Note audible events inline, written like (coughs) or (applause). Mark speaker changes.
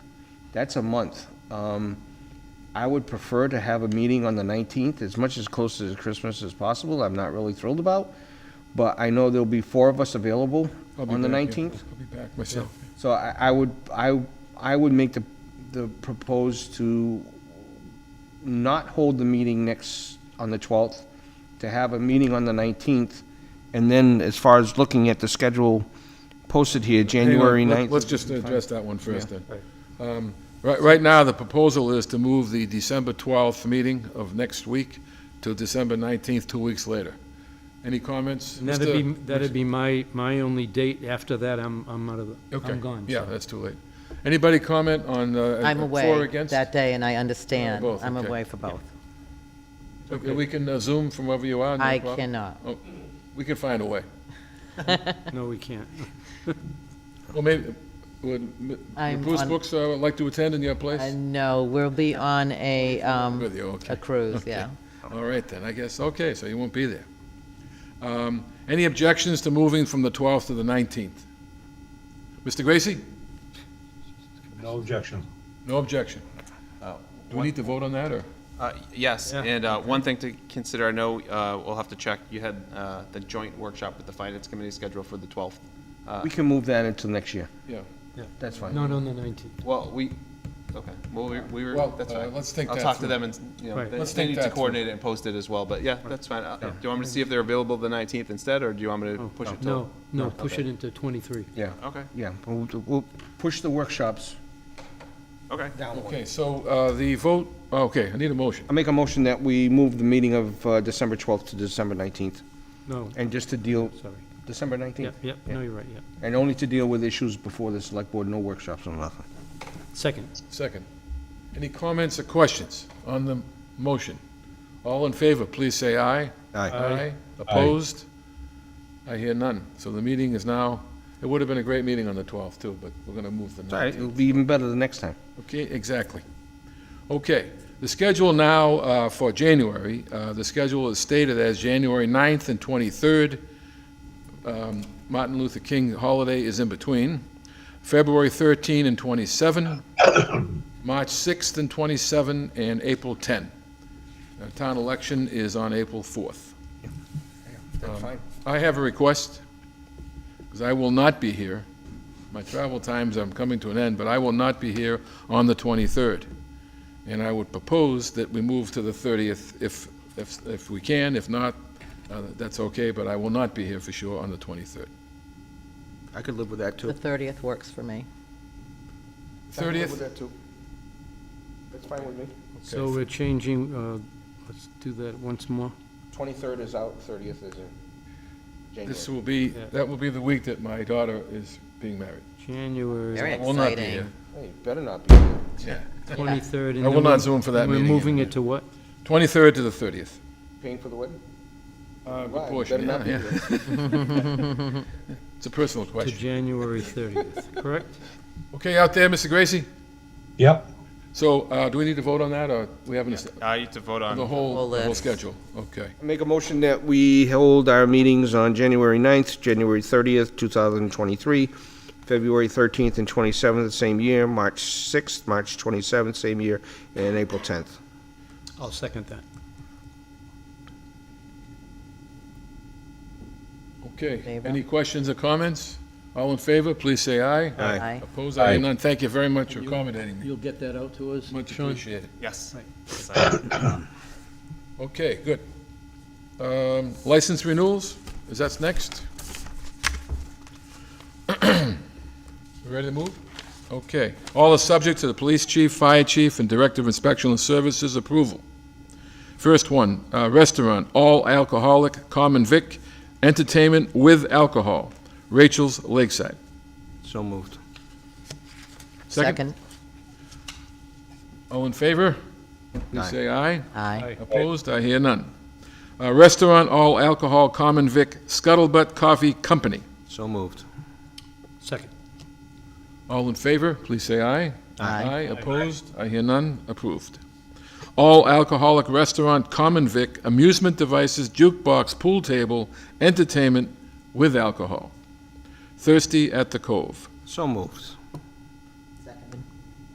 Speaker 1: That's a month. Um, I would prefer to have a meeting on the 19th, as much as close to Christmas as possible. I'm not really thrilled about, but I know there'll be four of us available
Speaker 2: I'll be
Speaker 1: on the
Speaker 2: back, yeah.
Speaker 1: 19th.
Speaker 2: I'll be back myself.
Speaker 1: So I, I would, I, I would make the, the propose to not hold the meeting next, on the 12th, to have a meeting on the 19th, and then as far as looking at the schedule posted here,
Speaker 2: Hang on,
Speaker 1: January
Speaker 2: let-
Speaker 1: 9th.
Speaker 2: Let's just address that one first then. Um, Right, right now, the proposal is to move the December 12th meeting of next week to December 19th, two weeks later. Any comments?
Speaker 3: And that'd be,
Speaker 2: Mr.
Speaker 3: that'd be my, my only date. After that, I'm, I'm out of the,
Speaker 2: Okay,
Speaker 3: I'm gone.
Speaker 2: Yeah,
Speaker 3: so.
Speaker 2: that's too late. Anybody comment on, uh?
Speaker 4: I'm
Speaker 2: For or
Speaker 4: away
Speaker 2: against?
Speaker 4: that day, and I
Speaker 2: Oh,
Speaker 4: understand.
Speaker 2: both,
Speaker 4: I'm
Speaker 2: okay.
Speaker 4: away for both.
Speaker 2: Okay, We can uh, Zoom from wherever you are. no
Speaker 4: I
Speaker 2: problem.
Speaker 4: cannot.
Speaker 2: Oh, We can find a way.
Speaker 3: No, we can't.
Speaker 2: Well, maybe, would
Speaker 4: I'm
Speaker 2: would Bruce
Speaker 4: on-
Speaker 2: Brooks uh, like to attend in your place?
Speaker 4: Uh, No, we'll be on a, um,
Speaker 2: With you, okay.
Speaker 4: a cruise, yeah.
Speaker 2: All right then, I guess, okay, so you won't be there. Um, Any objections to moving from the 12th to the 19th? Mr. Gracie?
Speaker 5: No objection.
Speaker 2: No objection. Do we need to vote on that, or?
Speaker 6: Uh, Yes,
Speaker 3: Yeah.
Speaker 6: and uh, one thing to consider, I know uh, we'll have to check, you had uh, the joint workshop with the Finance Committee scheduled for the 12th.
Speaker 1: We can move that until next year.
Speaker 2: Yeah.
Speaker 1: That's fine.
Speaker 3: Not on the 19th.
Speaker 6: Well, we, okay, well, we- we were,
Speaker 2: Well,
Speaker 6: that's
Speaker 2: uh,
Speaker 6: fine.
Speaker 2: let's think that
Speaker 6: I'll talk to
Speaker 2: through.
Speaker 6: them and, you know,
Speaker 3: Right.
Speaker 6: they-
Speaker 2: Let's
Speaker 6: they
Speaker 2: think
Speaker 6: need
Speaker 2: that
Speaker 6: to
Speaker 2: through.
Speaker 6: coordinate it and post it as well, but yeah, that's fine. Uh, Do you want me to see if they're available the 19th instead, or do you want me to push it till?
Speaker 3: Oh. No, no, push it into 23.
Speaker 1: Yeah,
Speaker 6: Okay,
Speaker 1: yeah, we'll, we'll push the workshops
Speaker 6: okay.
Speaker 1: down one.
Speaker 2: Okay, so uh, the vote, okay, I need a motion.
Speaker 1: I make a motion that we move the meeting of uh, December 12th to December 19th,
Speaker 3: No,
Speaker 1: and just to deal,
Speaker 3: sorry.
Speaker 1: December 19th?
Speaker 3: Yep, yep,
Speaker 1: Yeah.
Speaker 3: no, you're right, yep.
Speaker 1: And only to deal with issues before the select board, no workshops or nothing.
Speaker 3: Second.
Speaker 2: Second. Any comments or questions on the motion? All in favor, please say aye.
Speaker 1: Aye.
Speaker 2: Aye. Opposed? I hear none. So the meeting is now, it would have been a great meeting on the 12th, too, but we're going to move the 19th.
Speaker 1: It's all right, it'll be even better the next time.
Speaker 2: Okay, exactly. Okay, the schedule now uh, for January, uh, the schedule is stated as January 9th and 23rd. Um, Martin Luther King holiday is in between. February 13 and 27, (coughs) March 6th and 27, and April 10. Uh, Town election is on April 4th.
Speaker 1: That's fine.
Speaker 2: I have a request, because I will not be here. My travel times, I'm coming to an end, but I will not be here on the 23rd. And I would propose that we move to the 30th if, if, if we can. If not, uh, that's okay, but I will not be here for sure on the 23rd.
Speaker 1: I could live with that,
Speaker 4: The
Speaker 1: too.
Speaker 4: 30th works for me.
Speaker 2: 30th?
Speaker 1: that, too. That's fine with me.
Speaker 3: So we're changing, uh, let's do that once more.
Speaker 1: 23rd is out, 30th is in
Speaker 2: This will be,
Speaker 3: Yeah.
Speaker 2: that will be the week that my daughter is being married.
Speaker 4: Very
Speaker 3: January
Speaker 2: I will not be
Speaker 4: exciting.
Speaker 2: here.
Speaker 1: Hey, better not be here.
Speaker 2: Yeah.
Speaker 3: 23rd. and
Speaker 2: I
Speaker 3: then
Speaker 2: will not
Speaker 3: we're-
Speaker 2: zoom for that
Speaker 3: and
Speaker 2: meeting
Speaker 3: We're moving
Speaker 2: anyway.
Speaker 3: it to what?
Speaker 2: 23rd to the 30th.
Speaker 1: Paying for the wedding?
Speaker 2: Uh, good
Speaker 1: Right,
Speaker 2: portion,
Speaker 1: better not
Speaker 2: yeah,
Speaker 1: be
Speaker 2: yeah. (laughs) It's a personal
Speaker 3: To
Speaker 2: question.
Speaker 3: January 30th, correct?
Speaker 2: Okay, out there, Mr. Gracie?
Speaker 5: Yep.
Speaker 2: So, uh, do we need to vote on that, or we haven't, es-
Speaker 6: I need to vote
Speaker 2: the
Speaker 6: on,
Speaker 2: whole,
Speaker 4: Whole
Speaker 2: the whole
Speaker 4: list.
Speaker 2: schedule? Okay.
Speaker 1: Make a motion that we hold our meetings on January 9th, January 30th, 2023, February 13th and 27th, the same year, March 6th, March 27th, same year, and April 10th.
Speaker 3: I'll second that.
Speaker 2: Okay.
Speaker 4: Favor?
Speaker 2: Any questions or comments? All in favor, please say aye.
Speaker 1: Aye.
Speaker 4: Aye.
Speaker 2: Opposed, I hear none. Thank you very much for accommodating me.
Speaker 3: You'll get that out to us?
Speaker 2: Much appreciated.
Speaker 6: yes.
Speaker 3: Right.
Speaker 6: Yes, I-
Speaker 2: (coughs) Okay, good. Um, License renewals, is that's next? (coughs) We Ready to move? Okay. All are subject to the police chief, fire chief, and director of inspection and services approval. First one, uh, restaurant, all alcoholic, common vic, entertainment with alcohol, Rachel's Lakeside.
Speaker 1: So moved.
Speaker 4: Second?
Speaker 2: All in favor? Please
Speaker 1: Aye.
Speaker 2: say aye.
Speaker 4: Aye.
Speaker 2: Opposed, I hear none. Uh, Restaurant All Alcohol Common Vic Scuttlebutt Coffee Company.
Speaker 1: So moved.
Speaker 3: Second.
Speaker 2: All in favor, please say aye.
Speaker 4: Aye.
Speaker 2: opposed, I hear none, approved. All Alcoholic Restaurant Common Vic Amusement Devices Jukebox Pool Table Entertainment with Alcohol. Thirsty at the Cove.
Speaker 1: So moved.